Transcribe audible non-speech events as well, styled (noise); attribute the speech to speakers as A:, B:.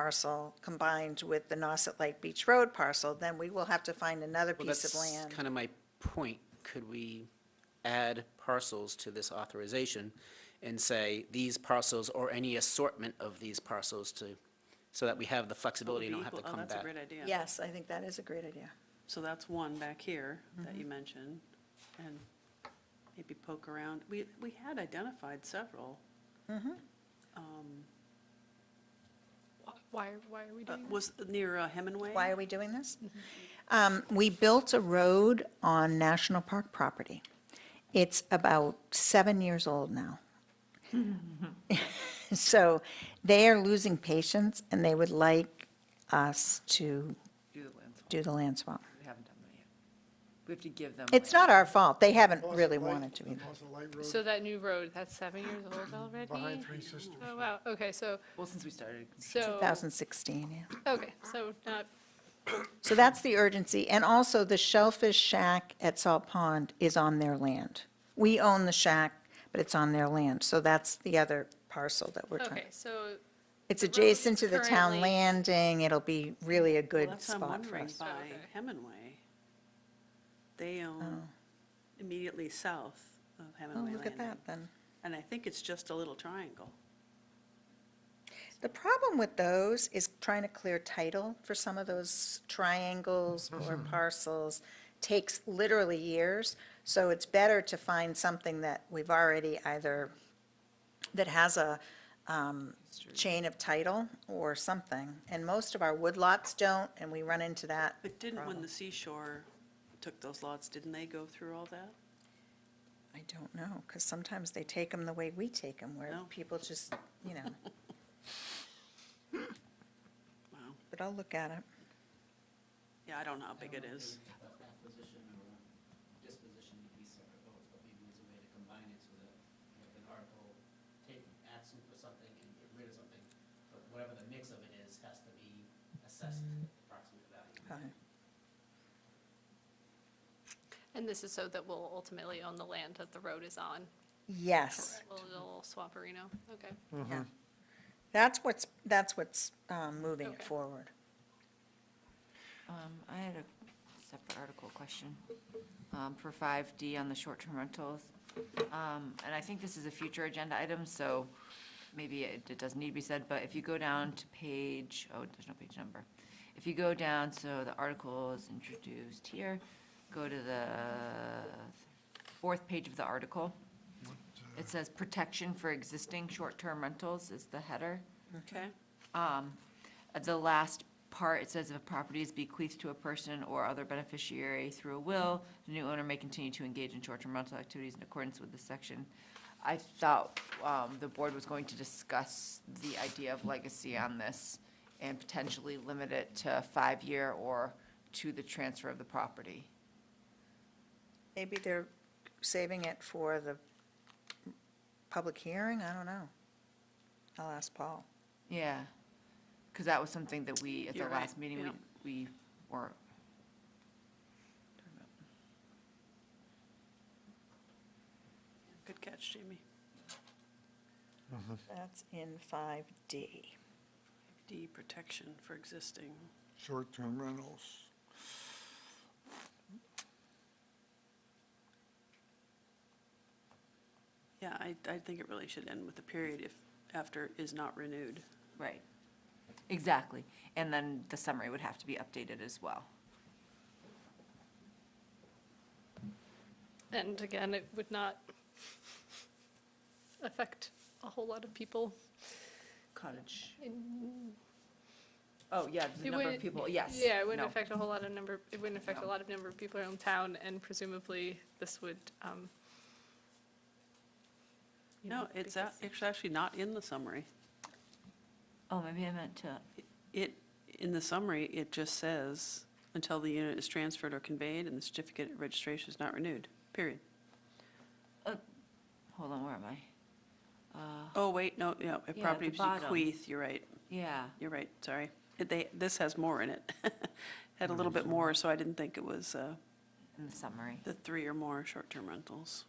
A: parcel combined with the Nauset Lake Beach Road parcel, then we will have to find another
B: Well,
A: piece of
B: that's
A: land.
B: kind of my point. Could we add parcels to this authorization and say, these parcels or any assortment of these parcels to, so that we have the flexibility and don't have to
C: Equal-
B: come
C: Oh, that's a
B: back?
C: great idea.
A: Yes, I think that is a great idea.
C: So that's one back here that
A: Mm-hmm.
C: you mentioned, and maybe poke around. We, we had identified several.
D: Why, why are we
C: Uh,
D: doing that?
C: Was near uh, Hemingway?
A: Why are we doing this? Um, We built a road on national park property. It's about seven years old now. (laughs) So they are losing patience, and they would like us to
E: do the land swap.
A: do the land swap.
E: We haven't done that yet. We have to give them.
A: It's
E: land.
A: not our fault. They haven't
F: Lost
A: really
F: the light-
A: wanted to
F: the
A: either.
F: lost the light road
D: So that new road, that's seven years old already?
F: Behind Three Sisters.
D: Oh, wow, okay, so,
E: Well, since we started.
D: so,
A: 2016, yeah.
D: okay, so not,
A: So that's the urgency. And also, the Shellfish Shack at Salt Pond is on their land. We own the shack, but it's on their land. So that's the other parcel that we're trying.
D: okay, so,
A: It's
D: the road
A: adjacent
D: is
A: to the town
D: currently-
A: landing. It'll be really a
C: Well,
A: good
C: that's what I'm
A: spot for
C: wondering,
A: us.
C: by
D: Okay.
C: Hemingway. They own immediately south of
A: Oh,
C: Hemingway
A: look at that, then.
C: Landing. And I think it's just a little triangle.
A: The problem with those is trying to clear title for some of those triangles or parcels takes literally years. So it's better to find something that we've already either, that has a um, chain of title or something. And most of our woodlots don't, and we run into that.
C: But didn't, when
A: problem.
C: the seashore took those lots, didn't they go through all that?
A: I don't know, because sometimes they take them the way we take them, where
C: No.
A: people just, you know,
C: Wow.
A: but I'll look at it.
C: Yeah, I don't know how big it is.
G: acquisition or disposition to be separate votes, but maybe there's a way to combine it so that, you know, if an article, take action for something and get rid of something, but whatever the mix of it is, has to be assessed
C: Mm.
G: approximate value.
A: Fine.
D: and this is so that we'll ultimately own the land that the road is on,
A: Yes.
D: a little swamperino, okay.
A: Yeah. Mm-hmm. That's what's, that's what's um, moving it
D: Okay.
A: forward.
E: Um, I had a separate article question, um, for five D on the short-term rentals. Um, and I think this is a future agenda item, so maybe it, it doesn't need to be said, but if you go down to page, oh, there's no page number. If you go down, so the article is introduced here, go to the fourth page of the article. It says protection for existing short-term rentals is the header.
C: Okay?
E: Um, at the last part, it says if a property is bequeathed to a person or other beneficiary through a will, the new owner may continue to engage in short-term rental activities in accordance with this section. I thought, um, the board was going to discuss the idea of legacy on this and potentially limit it to five-year or to the transfer of the property.
A: Maybe they're saving it for the public hearing, I don't know. I'll ask Paul.
E: Yeah, because that was something that we, at the
C: You're right,
E: last meeting,
C: yeah.
E: we, we were.
C: Good catch, Jamie.
A: That's in 5D.
C: D, protection for existing.
F: Short-term rentals.
C: Yeah, I, I think it really should end with a period if, after is not renewed.
E: Right. Exactly. And then the summary would have to be updated as well.
D: And again, it would not affect a whole lot of people.
E: Cottage. Oh, yeah, the
D: It
E: number of
D: wouldn't-
E: people, yes.
D: Yeah, it wouldn't
E: no.
D: affect a whole lot of number, it wouldn't affect a
E: No.
D: lot of number of people around town, and presumably this would, um. you
C: No,
D: know,
C: it's, a-
D: because-
C: it's actually not in the summary.
E: Oh, maybe I meant to,
C: It, in the summary, it just says, until the unit is transferred or conveyed and the certificate of registration is not renewed, period.
E: hold on, where am I? Uh,
C: Oh, wait, no, no, if
E: the
C: property
E: bottom.
C: bequeath, you're right,
E: Yeah,
C: you're right, sorry. It- They, this has more in it. (laughs) Had a little bit more, so I didn't think it was uh,
E: in the summary.
C: the three or more short-term rentals.